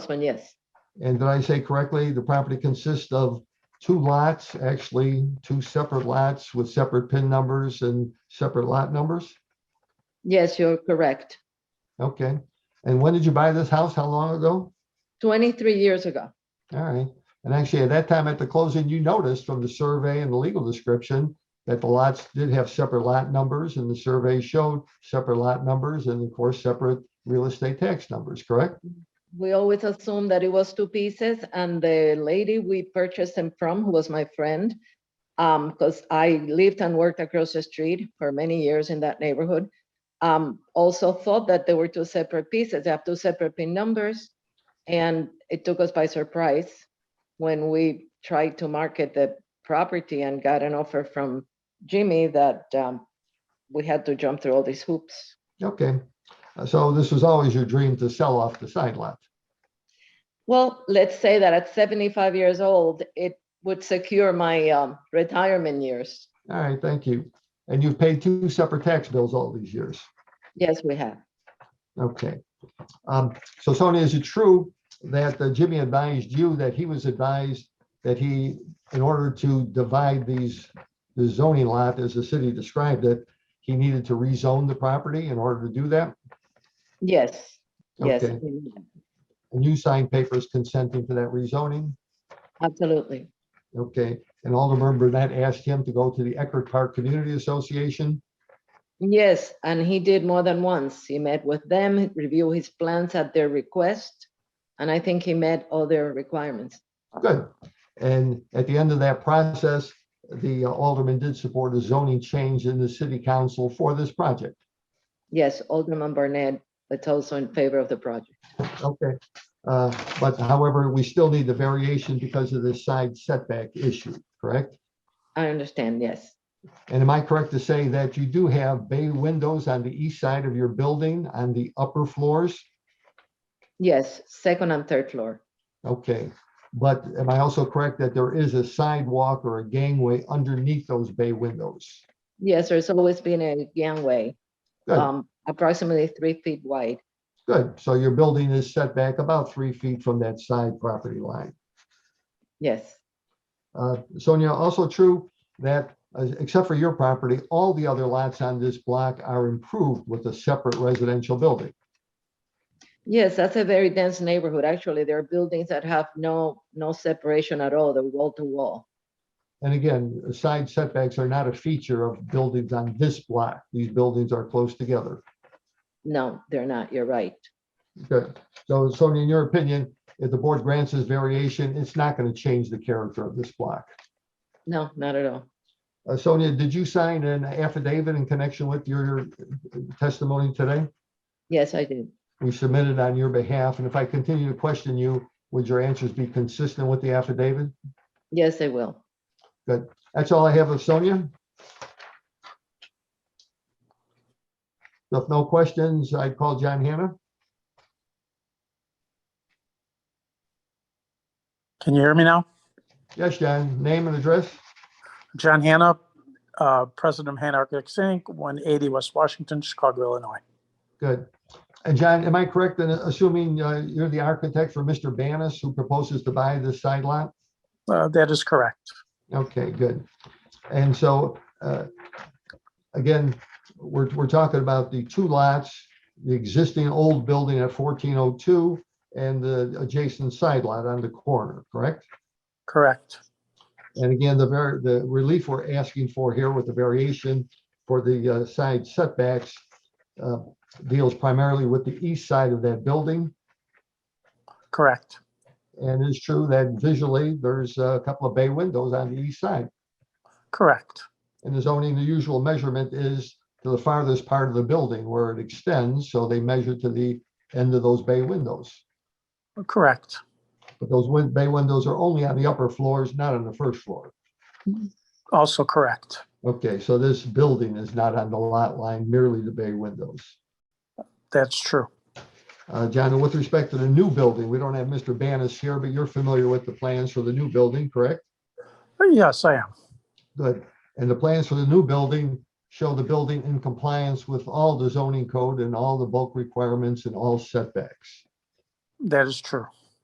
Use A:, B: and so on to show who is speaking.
A: Councilman, yes.
B: And did I say correctly, the property consists of two lots, actually, two separate lots with separate PIN numbers and separate lot numbers?
A: Yes, you're correct.
B: Okay. And when did you buy this house? How long ago?
A: 23 years ago.
B: All right. And actually, at that time at the closing, you noticed from the survey and the legal description that the lots did have separate lot numbers and the survey showed separate lot numbers and of course, separate real estate tax numbers, correct?
A: We always assumed that it was two pieces and the lady we purchased them from, who was my friend, um, because I lived and worked across the street for many years in that neighborhood, um, also thought that they were two separate pieces. They have two separate PIN numbers. And it took us by surprise when we tried to market the property and got an offer from Jimmy that um, we had to jump through all these hoops.
B: Okay. Uh, So this was always your dream to sell off the side lot.
A: Well, let's say that at 75 years old, it would secure my um, retirement years.
B: All right, thank you. And you've paid two separate tax bills all these years.
A: Yes, we have.
B: Okay. Um, So Sonia, is it true that uh, Jimmy advised you that he was advised that he, in order to divide these, the zoning lot as the city described it, he needed to rezone the property in order to do that?
A: Yes, yes,
B: Okay.
A: we have.
B: And you signed papers consenting to that rezoning?
A: absolutely.
B: Okay. And Alderman Burnett asked him to go to the Eckerd Park Community Association?
A: Yes, and he did more than once. He met with them, reviewed his plans at their request, and I think he met all their requirements.
B: Good. And at the end of that process, the uh, alderman did support a zoning change in the city council for this project.
A: Yes, Alderman Barnett, that's also in favor of the project.
B: Okay. Uh, But however, we still need the variation because of this side setback issue, correct?
A: I understand, yes.
B: And am I correct to say that you do have bay windows on the east side of your building on the upper floors?
A: Yes, second and third floor.
B: Okay. But am I also correct that there is a sidewalk or a gangway underneath those bay windows?
A: Yes, there's always been a gangway,
B: Good.
A: um, approximately three feet wide.
B: Good, so your building is set back about three feet from that side property line.
A: Yes.
B: Uh, Sonia, also true that, uh, except for your property, all the other lots on this block are improved with a separate residential building.
A: Yes, that's a very dense neighborhood. Actually, there are buildings that have no, no separation at all. They're wall to wall.
B: And again, side setbacks are not a feature of buildings on this block. These buildings are close together.
A: No, they're not. You're right.
B: Good, so Sonia, in your opinion, if the board grants this variation, it's not going to change the character of this block.
A: No, not at all.
B: Uh, Sonia, did you sign an affidavit in connection with your testimony today?
A: Yes, I did.
B: we submitted on your behalf, and if I continue to question you, would your answers be consistent with the affidavit?
A: Yes, I will.
B: That's all I have of Sonia. So If no questions, I'd call John Hannah.
C: Can you hear me now?
B: Yes, John, name and address.
C: John Hanna, uh, President of Hanna Architects Inc., 180 West Washington, Chicago, Illinois.
B: Good. And John, am I correct in assuming uh, you're the architect for Mr. Banis who proposes to buy this side lot?
C: Uh, That is correct.
B: Okay, good. And so, uh, again, we're, we're talking about the two lots, the existing old building at 1402 and the adjacent side lot on the corner, correct?
C: Correct.
B: And again, the very, the relief we're asking for here with the variation for the uh, side setbacks uh, deals primarily with the east side of that building.
C: Correct.
B: And it's true that visually, there's a couple of bay windows on the east side.
C: Correct.
B: In the zoning, the usual measurement is to the farthest part of the building where it extends, so they measure to the end of those bay windows.
C: Correct.
B: But those win- bay windows are only on the upper floors, not on the first floor.
C: Also correct.
B: Okay, so this building is not on the lot line, merely the bay windows.
C: That's true.
B: Uh, John, and with respect to the new building, we don't have Mr. Banis here, but you're familiar with the plans for the new building, correct?
C: Yes, I am.
B: Good. And the plans for the new building show the building in compliance with all the zoning code and all the bulk requirements and all setbacks.
C: That is true.